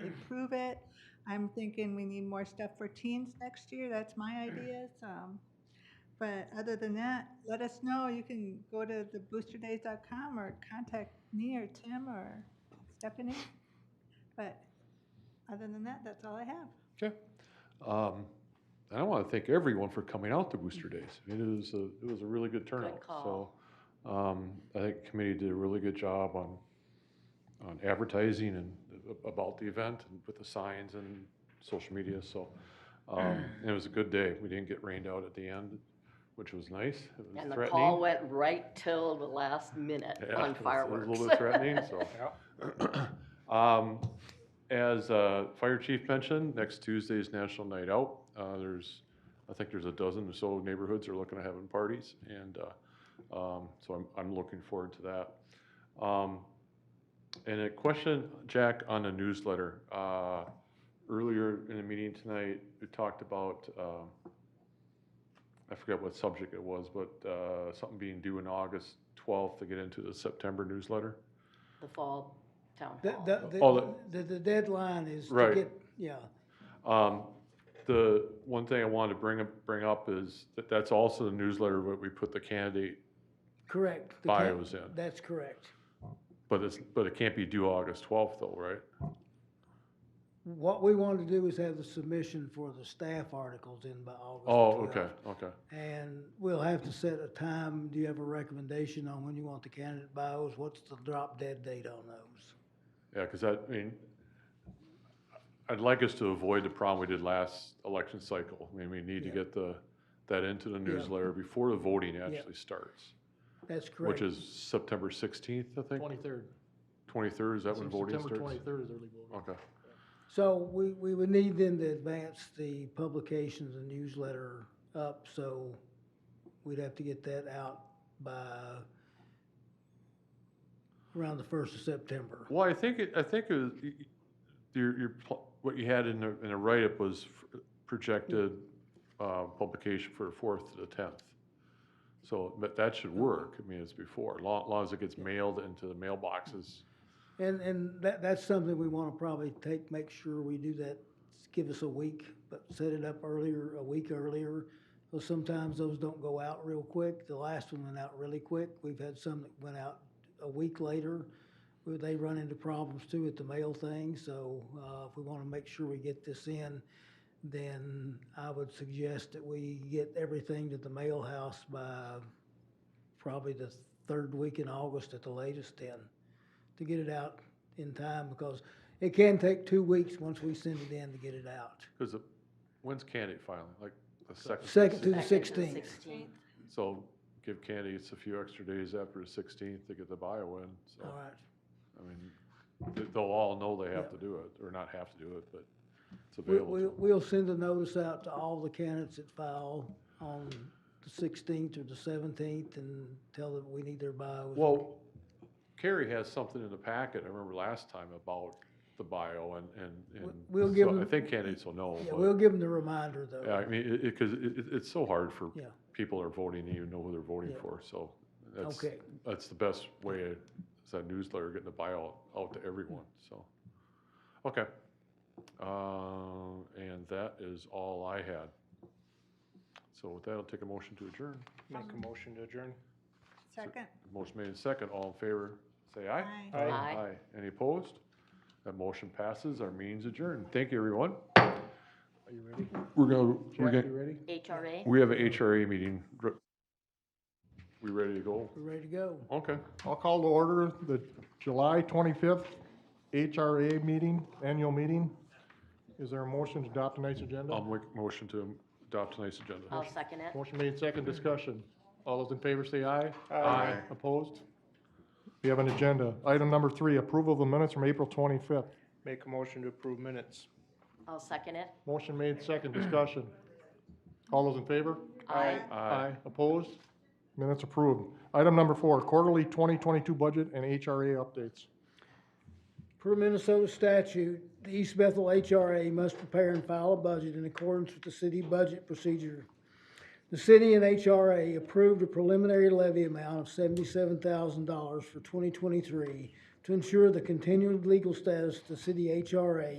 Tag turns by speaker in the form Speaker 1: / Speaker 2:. Speaker 1: approve it. I'm thinking we need more stuff for teens next year, that's my idea, so. But other than that, let us know, you can go to the boosterdays.com or contact me or Tim or Stephanie. But other than that, that's all I have.
Speaker 2: Okay. Um, And I want to thank everyone for coming out to Booster Days. It was a, it was a really good turnout.
Speaker 3: call.
Speaker 2: So um, I think the committee did a really good job on, on advertising and a- about the event and with the signs and social media, so. um, It was a good day. We didn't get rained out at the end, which was nice. It was
Speaker 3: And the
Speaker 2: threatening.
Speaker 3: call went right till the last minute
Speaker 2: Yeah, it was-
Speaker 3: on
Speaker 2: it was
Speaker 3: fireworks.
Speaker 2: A little bit threatening, so. Um, As uh, Fire Chief mentioned, next Tuesday is National Night Out. Uh, There's, I think there's a dozen or so neighborhoods are looking at having parties, and uh, um, so I'm, I'm looking forward to that. Um, And a question, Jack, on the newsletter. Uh, Earlier in the meeting tonight, we talked about, um, I forget what subject it was, but uh, something being due in August 12th to get into the September newsletter.
Speaker 3: The fall town
Speaker 4: The,
Speaker 3: hall.
Speaker 2: Oh, all
Speaker 4: the,
Speaker 2: that-
Speaker 4: the, the deadline is to
Speaker 2: Right.
Speaker 4: get, yeah,
Speaker 2: Um, The one thing I wanted to bring up, bring up is that that's also the newsletter where we put the candidate
Speaker 4: correct. The ca-
Speaker 2: bios in.
Speaker 4: That's correct.
Speaker 2: But it's, but it can't be due August 12th though, right?
Speaker 4: What we want to do is have the submission for the staff articles in by August.
Speaker 2: Oh,
Speaker 4: 12th.
Speaker 2: okay, okay.
Speaker 4: And we'll have to set a time. Do you have a recommendation on when you want the candidate bios? What's the drop dead date on those?
Speaker 2: Yeah, because I mean, I'd like us to avoid the problem we did last election cycle. I mean, we need to
Speaker 4: Yeah.
Speaker 2: get the, that into the newsletter before the voting actually starts.
Speaker 4: That's
Speaker 2: Which
Speaker 4: correct.
Speaker 2: is September 16th, I think?
Speaker 5: Twenty-third.
Speaker 2: 23rd, is that when voting starts? Oh.
Speaker 5: September twenty-third is early voting.
Speaker 2: Okay,
Speaker 4: So we, we would need them to advance the publications and newsletter up, so we'd have to get that out by around the first of September.
Speaker 2: well, I think, it- I think it was, y- y- your, your, pl- what you had in the, in the write-up was f- projected uh, publication for the 4th to the 10th. So, but that should work, I mean, it's before, long, long as it gets mailed into the mailboxes.
Speaker 4: And, and that, that's something we wanna probably take, make sure we do that, give us a week, but set it up earlier, a week earlier. Because sometimes those don't go out real quick. The last one went out really quick. We've had some that went out a week later. where They run into problems too with the mail thing, so, uh, if we wanna make sure we get this in, then I would suggest that we get everything to the mail house by probably the third week in August at the latest then to get it out in time because it can take two weeks once we send it in to get it out.
Speaker 2: Because the, when's candidate filing, like the second? to the
Speaker 4: Second to the
Speaker 2: sixth?
Speaker 3: Second to
Speaker 4: 16th.
Speaker 3: 16th.
Speaker 2: So give candidates a few extra days after the 16th to get the bio in, so,
Speaker 4: All right.
Speaker 2: I mean, they- they'll all know they have to
Speaker 4: Yeah.
Speaker 2: do it, or not have to do it, but it's
Speaker 4: We,
Speaker 2: available. to
Speaker 4: we,
Speaker 2: them.
Speaker 4: we'll send a notice out to all the candidates that file on the sixteenth or the seventeenth and tell them we need their bios.
Speaker 2: Well, Carrie has something in the packet, I remember last time about the bio and, and, and.
Speaker 4: we'll
Speaker 2: so
Speaker 4: give
Speaker 2: I
Speaker 4: 'em-
Speaker 2: think candidates will know,
Speaker 4: Yeah, we'll
Speaker 2: but,
Speaker 4: give them the reminder
Speaker 2: yeah,
Speaker 4: though.
Speaker 2: I mean, it, it, cause it, it- it's so hard for
Speaker 4: Yeah.
Speaker 2: people that are voting, to even know who they're voting
Speaker 4: Yeah.
Speaker 2: for, so. that's-
Speaker 4: Okay.
Speaker 2: That's the best way, is that newsletter, getting the bio out, out to everyone, so. Okay. Uh, and that is all I had. So with that, I'll take a motion to adjourn.
Speaker 5: Make a motion to adjourn.
Speaker 1: Second.
Speaker 2: Motion made in second, all in favor, say aye.
Speaker 1: Aye.
Speaker 5: Aye.
Speaker 3: Aye.
Speaker 2: Any opposed? That motion passes, our meeting's adjourned. Thank you, everyone.
Speaker 5: Are you ready?
Speaker 2: We're gonna, we're
Speaker 5: Jack,
Speaker 2: gonna,
Speaker 5: you ready?
Speaker 3: HRA.
Speaker 2: we have an HRA meeting. Dr- We ready to go?
Speaker 4: We're ready to go.
Speaker 2: Okay.
Speaker 6: I'll call to order the July 25th HRA meeting, annual meeting. Is there a motion to adopt tonight's
Speaker 2: I'll
Speaker 6: agenda?
Speaker 2: make a motion to adopt tonight's agenda.
Speaker 3: I'll second it.
Speaker 6: Motion made, second discussion. All those in favor say aye.
Speaker 2: Aye.
Speaker 6: Opposed? We have an agenda. Item number three, approval of the minutes from April 25th.
Speaker 5: Make a motion to approve minutes.
Speaker 3: I'll second it.
Speaker 6: Motion made, second discussion. All those in favor?
Speaker 3: Aye.
Speaker 2: Aye.
Speaker 6: Opposed? Minutes approved. Item number four, quarterly 2022 budget and HRA updates.
Speaker 4: Per Minnesota statute, the East Bethel HRA must prepare and file a budget in accordance with the city budget procedure. The city and HRA approved a preliminary levy amount of seventy-seven thousand dollars for twenty twenty-three to ensure the continued legal status of the city HRA